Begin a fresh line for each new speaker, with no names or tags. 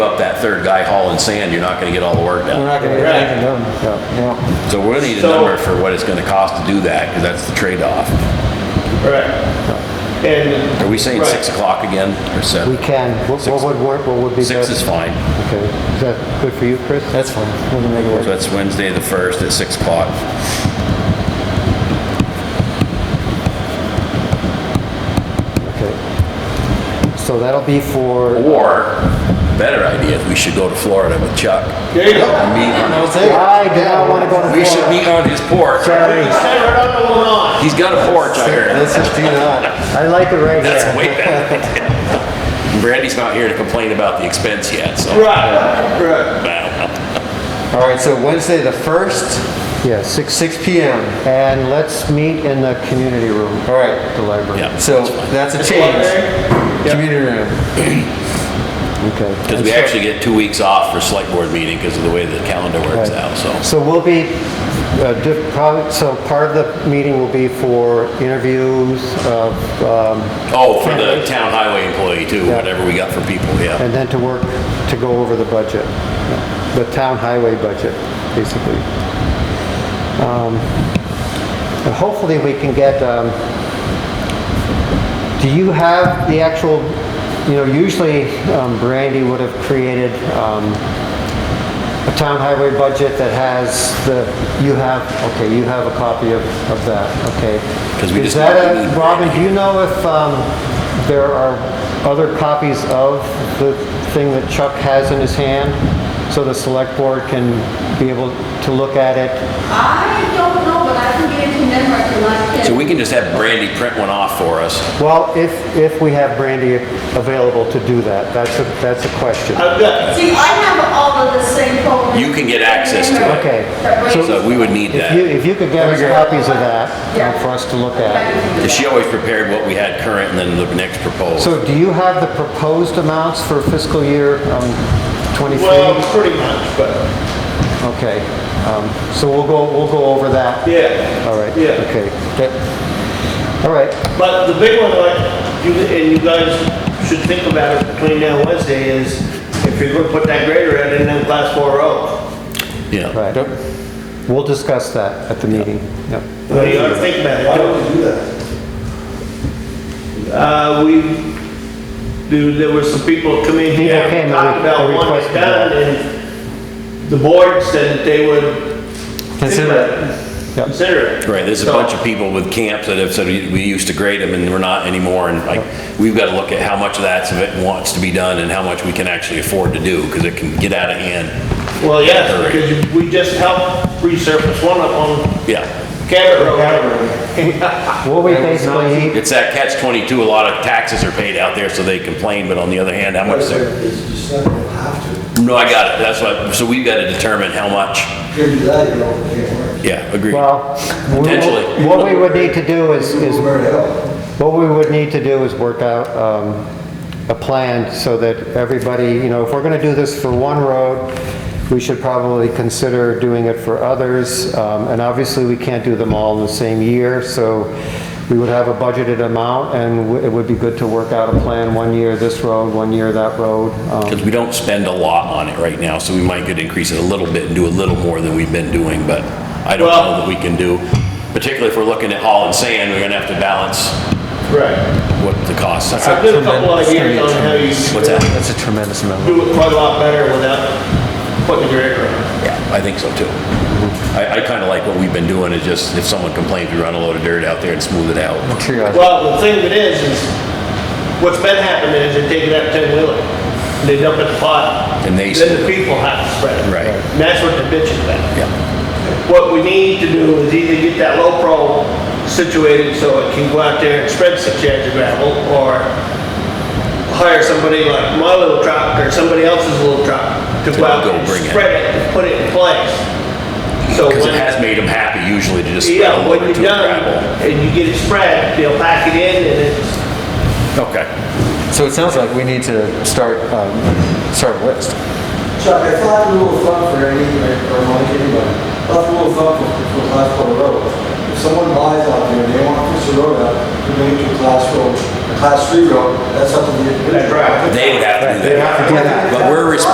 that third guy hauling sand, you're not gonna get all the work
We're
done.
not gonna get
Right.
anything done, yeah, yeah.
So we're gonna need a
So-
number for what it's gonna cost to do that, because that's the trade-off.
Right. And.
Are we saying
Right.
six o'clock again, or
We
seven?
can, what what would work, what would be
Six is
best?
fine.
Okay, is that good for you, Chris?
That's fine.
We can make it
So
work.
that's Wednesday, the first, at six o'clock.
Okay. So that'll be for,
Or, better idea, is we should go to Florida with Chuck.
There you go.
Meet on-
I do not wanna go to
We should meet on his porch.
Sorry,
Stand right up and hold on.
He's got a porch, I heard.
Let's just do that.
I like it right
That's
here.
way better. Brandy's not here to complain about the expense yet, so.
Right, right.
All right, so Wednesday, the 1st,
Yeah, six,
6 PM.
and let's meet in the community room.
All right,
The library.
Yeah.
so that's a change. Community room.
Okay.
Because we actually get two weeks off for select board meeting because of the way the calendar works out, so.
So we'll be, uh, di- probably, so part of the meeting will be for interviews of, um,
Oh, for the town highway employee too, whatever we got for people, yeah.
and then to work, to go over the budget, the town highway budget, basically. Um, and Hopefully, we can get, um, do you have the actual, you know, usually um, Brandy would have created um, a town highway budget that has the, you have, okay, you have a copy of, of that, okay.
'Cause we
Is
just-
that a, Robin, do you know if um, there are other copies of the thing that Chuck has in his hand? So the select board can be able to look at it?
I don't know, but I can get into memory for last ten.
So we can just have Brandy print one off for us.
Well, if, if we have Brandy available to do that, that's a, that's a question.
I've got,
See, I have all of the same programs.
You can get access to it.
Okay.
So we would need
If you,
that.
if you could get us copies of that uh, for us to look at.
'Cause she always prepared what we had current and then the next proposal.
So do you have the proposed amounts for fiscal year um, 23?
well, pretty much, but,
Okay, um, so we'll go, we'll go over that.
yeah.
All right,
Yeah.
okay. That- All right,
But the big one, like, you, and you guys should think about it between now and Wednesday is if you're gonna put that grader in in them class four oh. roads.
Yeah.
right. We'll discuss that at the meeting. Yep.
What do you gotta think about it?
Why would you do that?
Uh, we, there- there were some people come in here,
People came and
talked
re-
about wanting it
requested
done,
that.
and the board said that they would. think
Consider
about
it.
Yep.
Consider it.
Right, there's a
So-
bunch of people with camps that have said we we used to grade them and we're not anymore. And like, we've got to look at how much of that's, of it wants to be done and how much we can actually afford to do because it can get out of hand.
Well, yes, because you- we just helped resurface one up on
Yeah.
Cabot
Whatever.
Road.
What we
That was
basically,
It's that catch 22, a lot of taxes are paid out there, so they complain, but on the other hand, how much they
It's just not gonna have
No, I got it, that's what, so we've got to determine how much,
to. Give you that, you know, it can't work.
yeah, agreed.
well, we will-
Potentially.
what we would need to do is, is
Where the hell?
What we would need to do is work out um, a plan so that everybody, you know, if we're going to do this for one road, we should probably consider doing it for others. Um, And obviously, we can't do them all in the same year, so we would have a budgeted amount, and w- it would be good to work out a plan, one year this road, one year that road. Um,
Because we don't spend a lot on it right now, so we might could increase it a little bit and do a little more than we've been doing, but I don't know
Well-
that we can do, particularly if we're looking at hauling sand, we're gonna have to balance
Right.
what the costs are.
I've got a couple ideas on how you
What's that?
That's a tremendous amount.
do it quite a lot better without putting the grader on.
Yeah, I think so too. I, I kind of like what we've been doing, is just if someone complains, we run a load of dirt out there and smooth it out.
Triage.
Well, the thing of it is, is what's been happening is they take it out ten wheeler, they dump it in the pot.
And they
Then
spread
the
it.
people have to spread it.
Right.
And that's what the bitch is about.
Yeah.
What we need to do is either get that low pro situated so it can go out there and spread six yards of gravel, or hire somebody like my little truck or somebody else's little truck to
To
go out
go
and
bring it.
spread it, and put it in place. So
Because it
when-
has made them happy usually to just spread a
Yeah,
load
when
or
you're
two of gravel.
done and you get it spread, they'll pack it in and it's
Okay.
So it sounds like we need to start, um, start a list.
Chuck, I thought a little fun for any, or like anybody, I thought a little fun for, for class four roads. If someone buys out there and they want to push the road out, to make it to a class road, a class three road, that's something you.
That's right.
They would have to do that.
have to do that.
But we're responsible